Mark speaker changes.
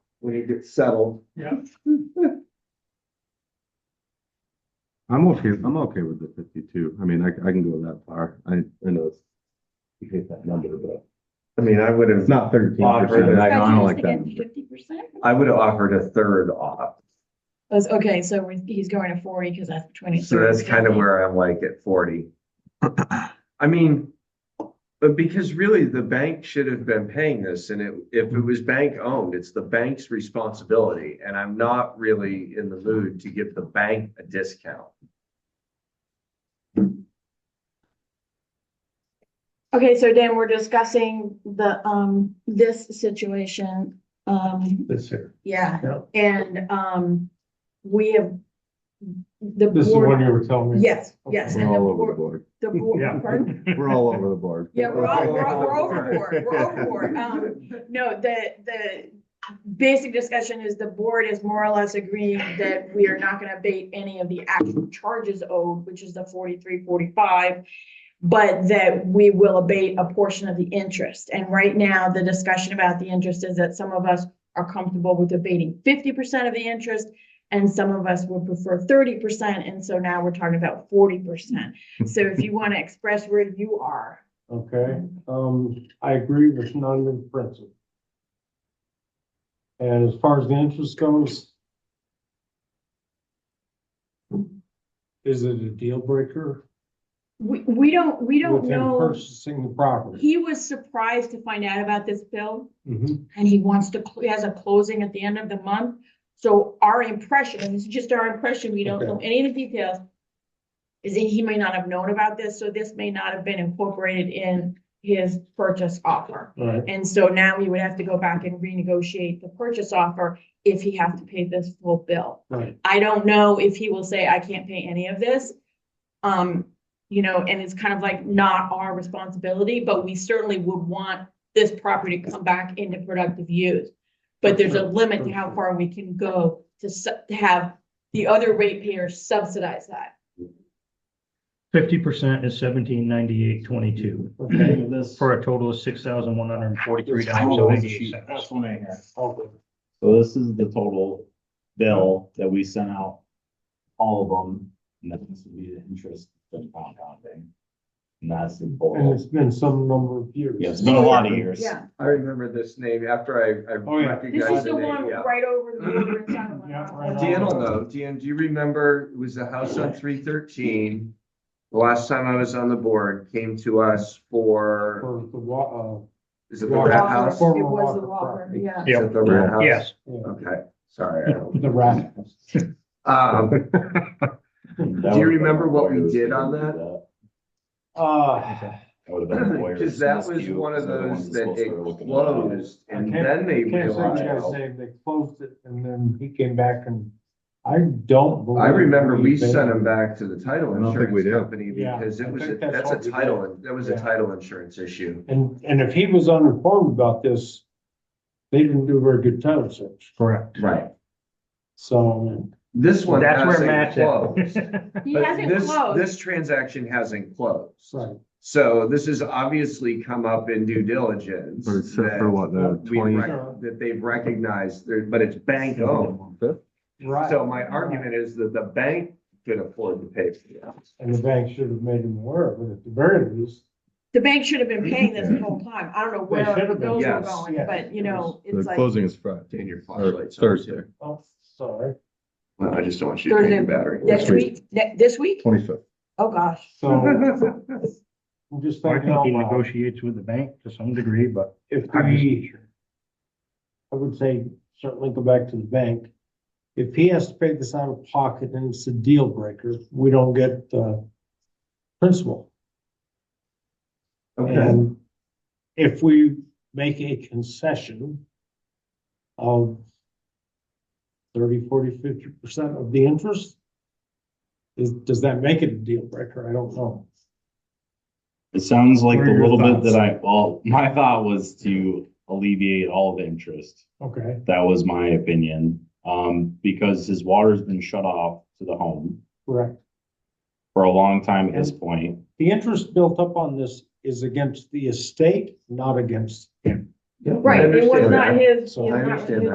Speaker 1: when it gets settled.
Speaker 2: Yeah.
Speaker 3: I'm okay, I'm okay with the fifty-two. I mean, I, I can go that far. I, I know it's, you hate that number, but
Speaker 1: I mean, I would
Speaker 3: it's
Speaker 1: have,
Speaker 3: not thirteen
Speaker 1: Offer
Speaker 3: percent. I don't like that. number.
Speaker 4: Fifty percent?
Speaker 1: I would have offered a third off.
Speaker 4: Okay, so we're- he's going to forty because that's between.
Speaker 1: So that's kind of where I'm like at forty. I mean, but because really the bank should have been paying this and it, if it was bank owned, it's the bank's responsibility. And I'm not really in the mood to give the bank a discount.
Speaker 4: Okay, so Dan, we're discussing the, um, this situation, um,
Speaker 2: This here.
Speaker 4: yeah,
Speaker 2: Yeah.
Speaker 4: and, um, we have. The
Speaker 2: This is the one
Speaker 4: board,
Speaker 2: you were telling me.
Speaker 4: yes, yes,
Speaker 3: We're
Speaker 4: and the
Speaker 3: all over the
Speaker 4: board,
Speaker 3: board.
Speaker 4: the board.
Speaker 2: Yeah.
Speaker 4: pardon?
Speaker 3: We're all over the board.
Speaker 4: Yeah, we're all, we're all, we're overboard, we're overboard, um, No, the, the basic discussion is the board is more or less agreeing that we are not gonna abate any of the actual charges owed, which is the forty-three, forty-five. But that we will abate a portion of the interest. And right now, the discussion about the interest is that some of us are comfortable with abating fifty percent of the interest. And some of us would prefer thirty percent, and so now we're talking about forty percent. So if you wanna express where you are.
Speaker 2: Okay, um, I agree with none in principle. And as far as the interest goes. Is it a deal breaker?
Speaker 4: We, we don't, we don't
Speaker 2: with him
Speaker 4: know.
Speaker 2: Purchasing the property.
Speaker 4: He was surprised to find out about this bill
Speaker 5: Mm-hmm.
Speaker 2: Mhm.
Speaker 4: and he wants to, he has a closing at the end of the month. So our impression, and this is just our impression, we don't know any of the details, is that he may not have known about this, so this may not have been incorporated in his purchase offer.
Speaker 2: All right,
Speaker 4: And so now we would have to go back and renegotiate the purchase offer if he has to pay this full bill.
Speaker 2: right.
Speaker 4: I don't know if he will say, I can't pay any of this. Um, you know, and it's kind of like not our responsibility, but we certainly would want this property to come back into productive use. But there's a limit to how far we can go to su- to have the other ratepayers subsidize that.
Speaker 6: Fifty percent is seventeen ninety-eight twenty-two,
Speaker 2: Okay, this.
Speaker 6: for a total of six thousand one hundred and forty-three dollars
Speaker 2: Oh,
Speaker 6: and
Speaker 2: this
Speaker 6: eighty-eight
Speaker 2: sheet.
Speaker 6: cents.
Speaker 2: one I had. Okay.
Speaker 5: So this is the total bill that we sent out, all of them, and then this would be the interest that's compounding. And that's the
Speaker 2: And
Speaker 5: total.
Speaker 2: it's been some number of years.
Speaker 5: Yeah, it's been a lot of years.
Speaker 4: Yeah,
Speaker 1: I remember this name after I, I
Speaker 2: Oh, yeah.
Speaker 4: this is
Speaker 1: recognized the
Speaker 4: the one
Speaker 1: name, yeah.
Speaker 4: right over the border in
Speaker 2: Yeah,
Speaker 4: Sacramento.
Speaker 2: right on.
Speaker 1: Dan will know. Dan, do you remember, it was the house on three thirteen. The last time I was on the board came to us for,
Speaker 2: For the wa,
Speaker 1: is it the
Speaker 2: Walker.
Speaker 1: rat house?
Speaker 2: Walker.
Speaker 4: It was the
Speaker 2: Former Walker
Speaker 4: Walker,
Speaker 2: property.
Speaker 4: yeah.
Speaker 1: Is it the rat house?
Speaker 6: Yes,
Speaker 2: uh,
Speaker 1: Okay, sorry. I don't-
Speaker 2: the rat.
Speaker 1: Um,
Speaker 5: Do
Speaker 1: you remember what we did on that?
Speaker 2: Uh,
Speaker 5: That would have been lawyers.
Speaker 1: Because that was
Speaker 5: dispute,
Speaker 1: one of
Speaker 5: they're the ones
Speaker 1: those that
Speaker 5: supposed
Speaker 1: it
Speaker 5: to be looking at it.
Speaker 1: closed and
Speaker 2: Okay.
Speaker 1: then they
Speaker 2: can't say you guys
Speaker 5: "Oh."
Speaker 1: realized.
Speaker 2: say they closed it and then he came back and I don't. believe
Speaker 1: I remember we
Speaker 2: paid
Speaker 1: sent them back to the title
Speaker 3: I don't think we
Speaker 1: insurance
Speaker 3: did.
Speaker 1: company
Speaker 2: Yeah,
Speaker 1: because
Speaker 2: I
Speaker 1: it was, a-
Speaker 2: think that's
Speaker 1: that's
Speaker 2: what
Speaker 1: a
Speaker 2: we
Speaker 1: title, that was a
Speaker 2: Yeah.
Speaker 1: title insurance issue.
Speaker 2: And, and if he was uninformed about this, they didn't do a very good title search.
Speaker 6: correct.
Speaker 1: Right.
Speaker 2: So,
Speaker 1: This one
Speaker 6: That's where
Speaker 1: hasn't
Speaker 6: Matt's
Speaker 1: closed.
Speaker 6: at.
Speaker 4: He
Speaker 1: But
Speaker 4: hasn't
Speaker 1: this-
Speaker 4: closed.
Speaker 1: This transaction hasn't closed.
Speaker 2: right,
Speaker 1: So this has obviously come up in due diligence.
Speaker 3: But it's set for
Speaker 1: that
Speaker 3: what, the
Speaker 1: we
Speaker 3: twenty?
Speaker 1: rec- That they've recognized, there- but it's bank owned.
Speaker 2: right.
Speaker 1: So my argument is that the bank could afford to pay for that.
Speaker 2: And the bank should have made him aware of it at the very least.
Speaker 4: The bank should have been paying this the whole time. I don't know where
Speaker 2: should have
Speaker 4: the
Speaker 2: been,
Speaker 4: bills were
Speaker 1: yes,
Speaker 4: going,
Speaker 2: yes.
Speaker 4: but you know, it's
Speaker 3: The
Speaker 4: like.
Speaker 3: closing is Friday,
Speaker 1: Turn your
Speaker 3: or
Speaker 1: flashlights on,
Speaker 3: Thursday,
Speaker 1: too.
Speaker 2: Oh, sorry.
Speaker 1: Well, I just don't want you to drain your battery.
Speaker 4: Next week, ne- this week?
Speaker 3: twenty-fifth.
Speaker 4: Oh, gosh.
Speaker 2: So I'm just
Speaker 6: I
Speaker 2: thinking
Speaker 6: think
Speaker 2: out
Speaker 6: he
Speaker 2: loud.
Speaker 6: negotiates with the bank to some degree, but
Speaker 2: If
Speaker 6: I'm just-
Speaker 2: we, I would say certainly go back to the bank. If he has to pay this out of pocket and it's a deal breaker, we don't get, uh, principal.
Speaker 1: Okay,
Speaker 2: And if we make a concession of 30, 40, 50 percent of the interest, is, does that make it a deal breaker? I don't know.
Speaker 5: It sounds like
Speaker 6: What
Speaker 5: the
Speaker 6: are your
Speaker 5: little bit
Speaker 6: thoughts?
Speaker 5: that I, well, my thought was to alleviate all the interest.
Speaker 2: Okay.
Speaker 5: That was my opinion, um, because his water's been shut off to the home
Speaker 2: Correct.
Speaker 5: for a long time at this point.
Speaker 2: The interest built up on this is against the estate, not against
Speaker 1: Yeah, I
Speaker 4: Right, it was
Speaker 1: understand
Speaker 4: not
Speaker 1: that.
Speaker 4: his.
Speaker 2: So
Speaker 4: it
Speaker 1: I
Speaker 4: was not
Speaker 1: understand
Speaker 4: his-